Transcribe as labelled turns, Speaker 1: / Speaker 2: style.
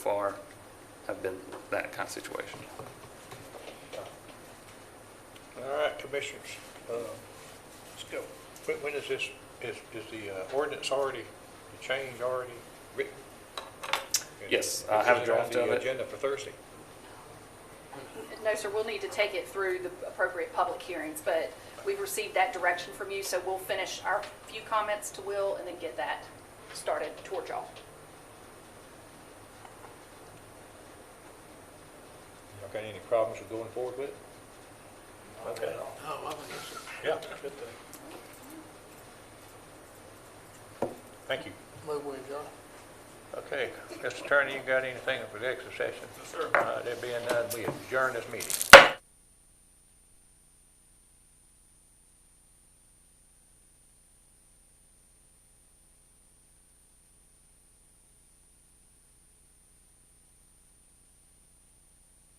Speaker 1: far have been that kind of situation.
Speaker 2: All right, commissioners, uh, let's go. When- When is this, is, is the uh, ordinance already, the change already written?
Speaker 1: Yes, I have a
Speaker 2: Is it on
Speaker 1: draft of
Speaker 2: the
Speaker 1: it.
Speaker 2: agenda for Thursday?
Speaker 3: No, sir, we'll need to take it through the appropriate public hearings, but we've received that direction from you, so we'll finish our few comments to Will and then get that started toward y'all.
Speaker 2: Y'all got any problems with going forward with it? Okay.
Speaker 4: Oh, I think it's
Speaker 2: Yeah. Thank you.
Speaker 4: a move with y'all.
Speaker 2: Okay, Mr. Attorney, you got anything for the extra session?
Speaker 5: Yes, sir.
Speaker 2: Uh, There being none, we adjourn this meeting.